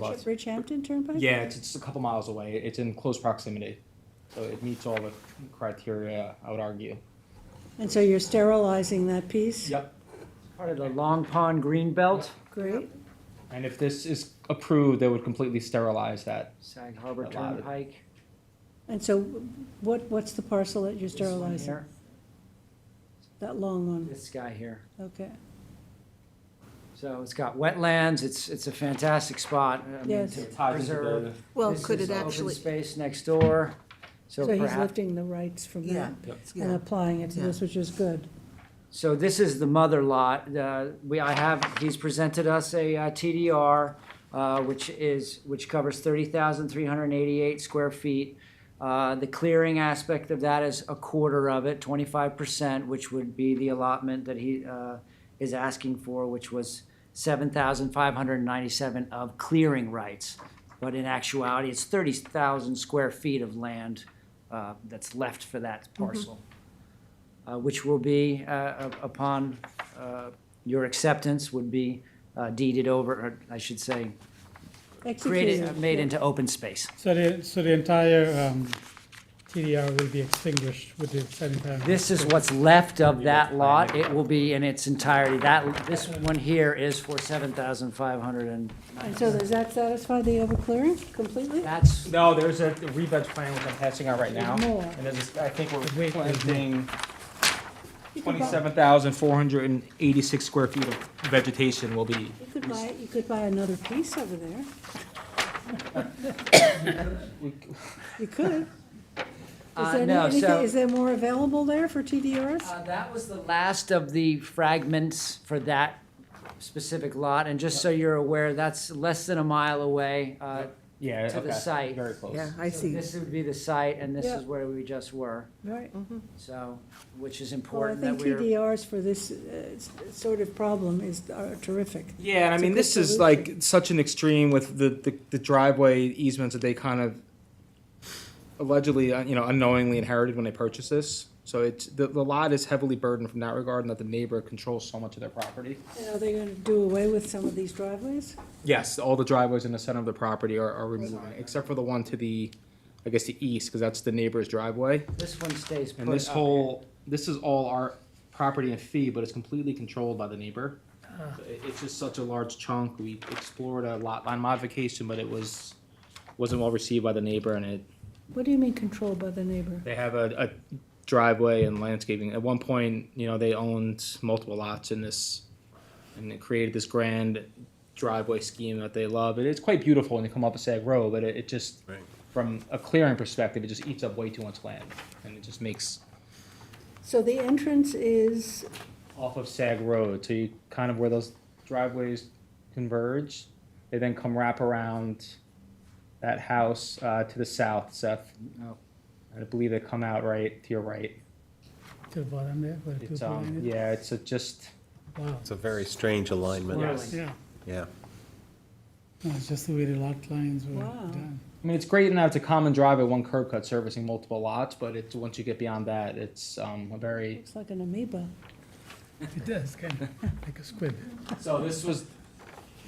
Lots. Bridgehampton Turnpike? Yeah, it's, it's a couple miles away. It's in close proximity. So it meets all the criteria, I would argue. And so you're sterilizing that piece? Yep. Part of the Long Pond Green Belt, Great. And if this is approved, they would completely sterilize that. Sag Harbor A lot of- Turnpike. And so what, what's the parcel that you're this one sterilizing? here, That long one, This guy here. okay. So it's got wetlands, it's, it's a fantastic spot. I mean, Yes. to It ties into preserve. the- Well, This could is it open actually, Space next door, so So he's perhaps, lifting the rights from yeah, that and Mm-hmm. yeah. applying it to this, which is good. so this is the mother lot. Uh, We, I have, he's presented us a uh, TDR, uh, which is, which covers thirty thousand three hundred and eighty-eight square feet. Uh, The clearing aspect of that is a quarter of it, twenty-five percent, which would be the allotment that he uh, is asking for, which was seven thousand five hundred and ninety-seven of clearing rights. But in actuality, it's thirty thousand square feet of land uh, that's left for that parcel, uh, which will be, uh, up- upon uh, your acceptance, would be uh, deeded over, or I should say, created, Executed. made into open space. So the, so the entire um, TDR will be extinguished with the sanitary. This is what's left of that lot. It will be in its entirety. That, this one here is for seven thousand five hundred and And so does that satisfy the overclearing completely? that's, No, there's a rebed plan which I'm passing out right now. More. And there's, a- I think we're Wait, there's planting You could buy- twenty-seven thousand four hundred and eighty-six square feet of vegetation will be. You could buy, you could buy another piece over there. You could. Is Uh, there no, anything- so- Is there more available there for TDRs? uh, that was the last of the fragments for that specific lot. And just so you're aware, that's less than a mile away. Uh, Yeah, To the okay, site. Very close. Yeah, I so see. This would be the site and this is Yeah. where we just were, Right. so, which is Well, I important that think we're. TDRs for this uh, s- sort of problem is are terrific. Yeah, and I It's a mean, good this is like such an extreme with the, the, the driveway easements that they kind of allegedly, uh, you know, unknowingly inherited when they purchased this. So it's, the, the lot is heavily burdened from that regard and that the neighbor controls so much of their property. And are they gonna do away with some of these driveways? Yes, all the driveways in the center of the property are, are removed, except for the one to the, I guess, the east, because that's the neighbor's driveway. This one stays put And this up here. whole, this is all our property and fee, but it's completely controlled by the neighbor. So it- It's just such a large chunk. We explored a lot line modification, but it was, wasn't well received by the neighbor and it, What do you mean controlled by the neighbor? they have a, a driveway and landscaping. At one point, you know, they owned multiple lots in this, and it created this grand driveway scheme that they love. And it's quite beautiful when you come up a Sag Road, but it, it just, from a clearing perspective, it just eats up way too much land. And it just makes So the entrance is, off of Sag Road, so you kind of where those driveways converge. They then come wrap around that house uh, to the south, Seth. Oh. I believe they come out right to your right. To the bottom there, where the It's people are um, in it. yeah, it's a just Wow, It's a very strange alignment. Swirling. yeah. Yeah. No, it's just the way the lot lines were Wow. done. I mean, it's great in that it's a common driveway, one curb cut servicing multiple lots, but it's once you get beyond that, it's um, a very. looks like an amoeba. It does, kind of, like a squid. So this was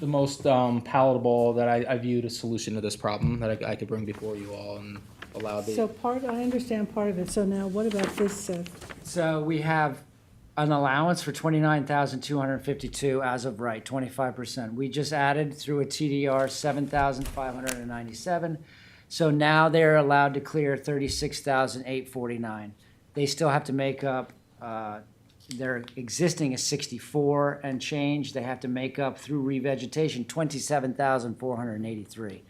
the most um, palatable that I, I viewed a solution to this problem that I, I could bring before you all and allow the. So part, I understand part of it, so now what about this, uh, Seth? So we have an allowance for twenty-nine thousand two hundred and fifty-two as of right, twenty-five percent. We just added through a TDR seven thousand five hundred and ninety-seven. So now they're allowed to clear thirty-six thousand eight forty-nine. They still have to make up, uh, their existing is sixty-four and change. They have to make up through revegetation twenty-seven thousand four hundred and eighty-three.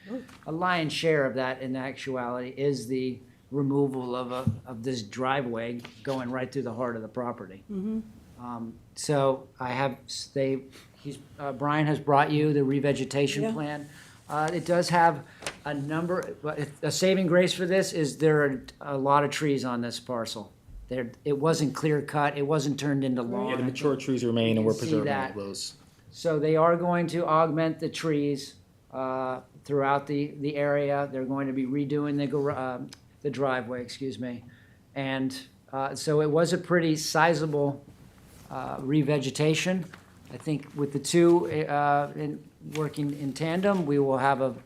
A lion's share of that in actuality is the removal of a, of this driveway going right through the heart of the property. Um, So I have, s- they, he's, uh, Brian has brought you the Yeah. revegetation plan. Uh, It does have a number, but it- a saving grace for this is there are a lot of trees on this parcel. There, it wasn't clear cut, it wasn't turned into lawn. Yeah, the mature trees remain and we're You can see preserving all that. those. So they are going to augment the trees uh, throughout the, the area. They're going to be redoing the, gar- uh, the driveway, excuse me. And uh, so it was a pretty sizable uh, revegetation. I think with the two, uh, in, working in tandem, we will have a